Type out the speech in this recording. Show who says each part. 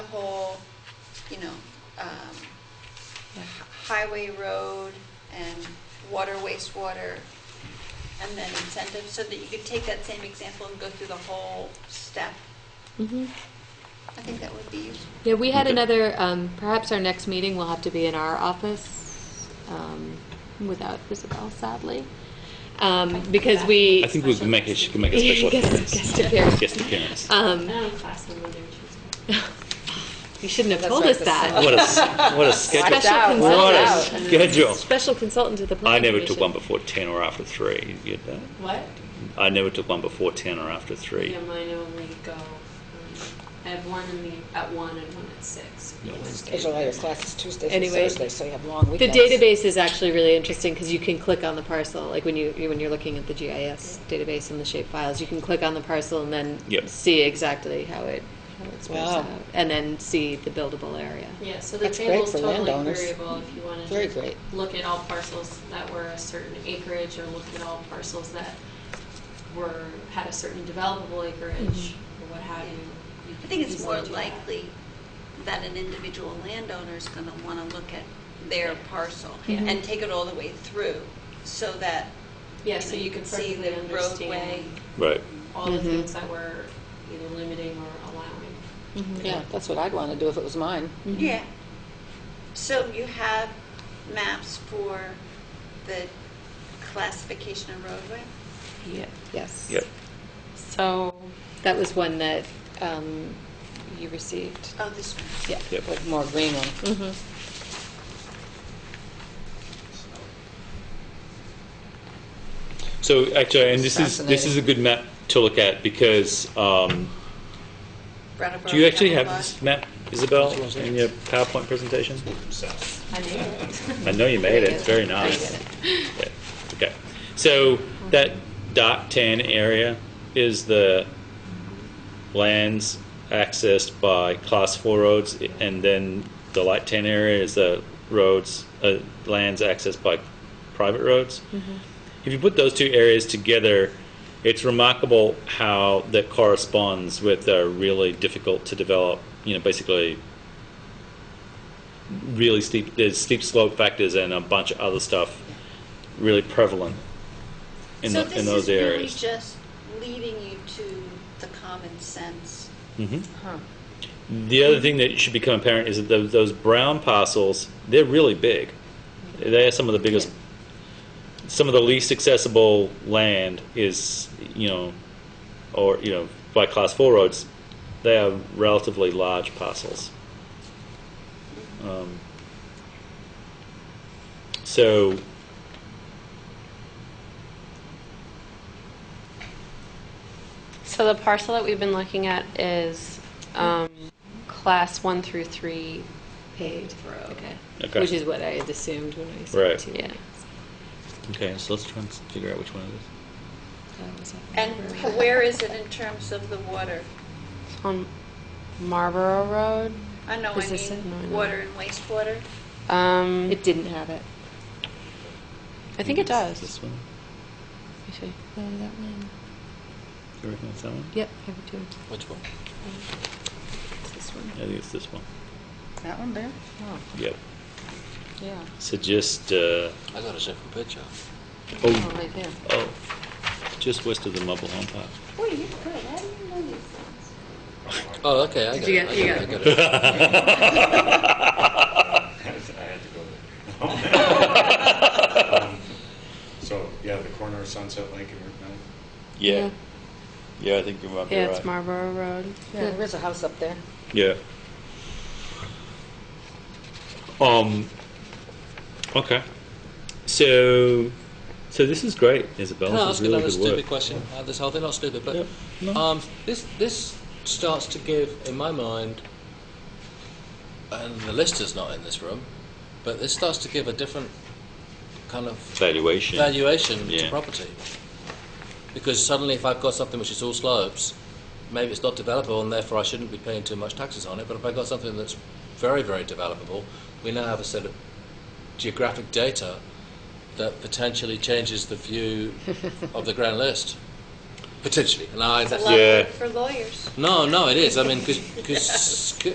Speaker 1: you know, um, h- highway, road, and water, wastewater, and then incentives, so that you could take that same example and go through the whole step.
Speaker 2: Mhm.
Speaker 1: I think that would be useful.
Speaker 2: Yeah, we had
Speaker 3: Okay.
Speaker 2: another, um, perhaps our next meeting will have to be in our office um, without Isabel, sadly. Um, Because we.
Speaker 3: I think we could make it, she could make a special
Speaker 2: Guest-
Speaker 3: appearance.
Speaker 2: guest appearance.
Speaker 3: Guest appearance.
Speaker 2: Um,
Speaker 4: I don't have class on Monday or Tuesday.
Speaker 2: You shouldn't have
Speaker 5: That's
Speaker 2: told
Speaker 5: right,
Speaker 2: us
Speaker 5: the
Speaker 2: that.
Speaker 5: summer.
Speaker 3: What a, s- what a schedule.
Speaker 5: Watch out,
Speaker 2: Special
Speaker 3: What a
Speaker 5: watch
Speaker 2: consultant.
Speaker 3: schedule.
Speaker 2: Special consultant to the
Speaker 3: I
Speaker 2: planning
Speaker 3: never took one
Speaker 2: commission.
Speaker 3: before 10 or after 3. You get that?
Speaker 4: What?
Speaker 3: I never took one before 10 or after 3.
Speaker 4: Yeah, mine only go, um, I have one in the, at one and one at six.
Speaker 3: No, it's-
Speaker 5: Schedule all your classes Tuesdays and
Speaker 2: Anyway,
Speaker 5: Thursdays, so you have long
Speaker 2: The
Speaker 5: weekends.
Speaker 2: database is actually really interesting because you can click on the parcel, like when you, you- when you're looking at the GIS database and the shape files, you can click on the parcel and then
Speaker 3: Yep.
Speaker 2: see exactly how it, how it spreads
Speaker 5: Wow.
Speaker 2: out. And then see the buildable area.
Speaker 4: Yeah, so the
Speaker 5: That's great
Speaker 4: table's
Speaker 5: for
Speaker 4: totally
Speaker 5: landowners.
Speaker 4: variable if you wanted to.
Speaker 5: Very great.
Speaker 4: Look at all parcels that were a certain acreage, or look at all parcels that were, had a certain developable acreage,
Speaker 5: Mm-hmm.
Speaker 4: or what have you. You
Speaker 1: I
Speaker 4: can
Speaker 1: think it's
Speaker 4: easily
Speaker 1: more
Speaker 4: do that.
Speaker 1: likely that an individual landowner is going to want to look at their parcel
Speaker 4: Yeah.
Speaker 1: and take it all the way through, so that
Speaker 4: Yeah,
Speaker 1: you
Speaker 4: so
Speaker 1: know,
Speaker 4: you can
Speaker 1: see
Speaker 4: perfectly
Speaker 1: the roadway.
Speaker 4: understand
Speaker 3: Right.
Speaker 4: all the
Speaker 5: Mm-hmm.
Speaker 2: Mhm.
Speaker 4: things that were either limiting or allowing.
Speaker 5: Mm-hmm. Yeah, that's what I'd want to do if it was mine.
Speaker 1: Yeah. So you have maps for the classification of roadway?
Speaker 6: Yeah.
Speaker 2: Yes.
Speaker 3: Yep.
Speaker 6: So,
Speaker 2: That was one that um, you received.
Speaker 1: Oh, this one.
Speaker 2: Yeah.
Speaker 3: Yep.
Speaker 5: With more green one.
Speaker 2: Mm-hmm.
Speaker 3: So actually, and this is this is a
Speaker 5: Fascinating.
Speaker 3: good map to look at because um,
Speaker 1: Brattleboro
Speaker 3: do you actually have
Speaker 1: Capital Bar.
Speaker 3: this map, Isabel, in your PowerPoint presentation?
Speaker 4: I made it.
Speaker 3: I know you made it. It's very
Speaker 2: I did
Speaker 3: nice.
Speaker 2: it.
Speaker 3: Yeah. Okay. So that dot tan area is the lands accessed by class four roads, and then the light tan area is the roads, uh, lands accessed by private roads. If you put those two areas together, it's remarkable how that corresponds with a really difficult to develop, you know, basically really steep, there's steep slope factors and a bunch of other stuff really prevalent in,
Speaker 1: so
Speaker 3: tho-
Speaker 1: this
Speaker 3: in those
Speaker 1: is really
Speaker 3: areas.
Speaker 1: just leading you to the common sense.
Speaker 3: Mhm. The other thing that should become apparent is that those, those brown parcels, they're really big. They are some of the biggest, some of the least accessible land is, you know, or, you know, by class four roads, they are relatively large parcels. Um, so,
Speaker 6: so the parcel that we've been looking at is um, class one through three
Speaker 2: Paid. Okay.
Speaker 3: Okay.
Speaker 2: Which is what I had assumed when I said
Speaker 3: Right.
Speaker 2: two
Speaker 6: Yeah.
Speaker 2: weeks.
Speaker 3: okay, so let's try and figure out which one it is.
Speaker 2: That was a-
Speaker 1: And where is it in terms of the water?
Speaker 6: on Marlborough Road.
Speaker 1: I know,
Speaker 6: Is
Speaker 1: I
Speaker 6: this it? No, I
Speaker 1: mean,
Speaker 6: know.
Speaker 1: water and wastewater.
Speaker 6: Um,
Speaker 2: It didn't have it.
Speaker 6: I think it
Speaker 3: it's
Speaker 6: does.
Speaker 3: This one?
Speaker 6: Let me see.
Speaker 2: No, that one.
Speaker 3: Do you reckon it's that one?
Speaker 2: Yep, I have two.
Speaker 3: Which one?
Speaker 2: It's this one.
Speaker 3: I think it's this one.
Speaker 5: That one there? Oh,
Speaker 3: Yep.
Speaker 5: yeah.
Speaker 3: So just, uh,
Speaker 7: I got a different picture.
Speaker 3: oh,
Speaker 2: right there.
Speaker 3: oh, just west of the Mobile Home Park.
Speaker 1: Boy, you're good. I didn't know these things.
Speaker 7: Oh, okay, I got
Speaker 2: You
Speaker 7: it.
Speaker 2: got-
Speaker 7: I
Speaker 2: you
Speaker 7: got,
Speaker 2: got
Speaker 7: it, I got it.
Speaker 8: I had to go there. Um, So, yeah, the corner of Sunset Lake and Route 9.
Speaker 3: Yeah. Yeah, I think you might be
Speaker 6: Yeah,
Speaker 3: right.
Speaker 6: it's Marlborough Road.
Speaker 5: Yeah, there's a house up there.
Speaker 3: Yeah. Um. Okay. So, so this is great, Isabel.
Speaker 7: Can I
Speaker 3: this
Speaker 7: ask
Speaker 3: is really
Speaker 7: another
Speaker 3: good work.
Speaker 7: stupid question? Uh, this whole thing, not stupid, but
Speaker 3: Yeah, no.
Speaker 7: um, this this starts to give, in my mind, and the lister's not in this room, but this starts to give a different kind of
Speaker 3: Valuation.
Speaker 7: valuation
Speaker 3: Yeah.
Speaker 7: to property. Because suddenly, if I've got something which is all slopes, maybe it's not developable, and therefore I shouldn't be paying too much taxes on it. But if I've got something that's very, very developable, we now have a set of geographic data that potentially changes the view of the grand list. Potentially. And I,
Speaker 1: It's a
Speaker 7: that's,
Speaker 1: lot of
Speaker 3: Yeah.
Speaker 1: work for lawyers.
Speaker 7: no, no, it is. I mean, because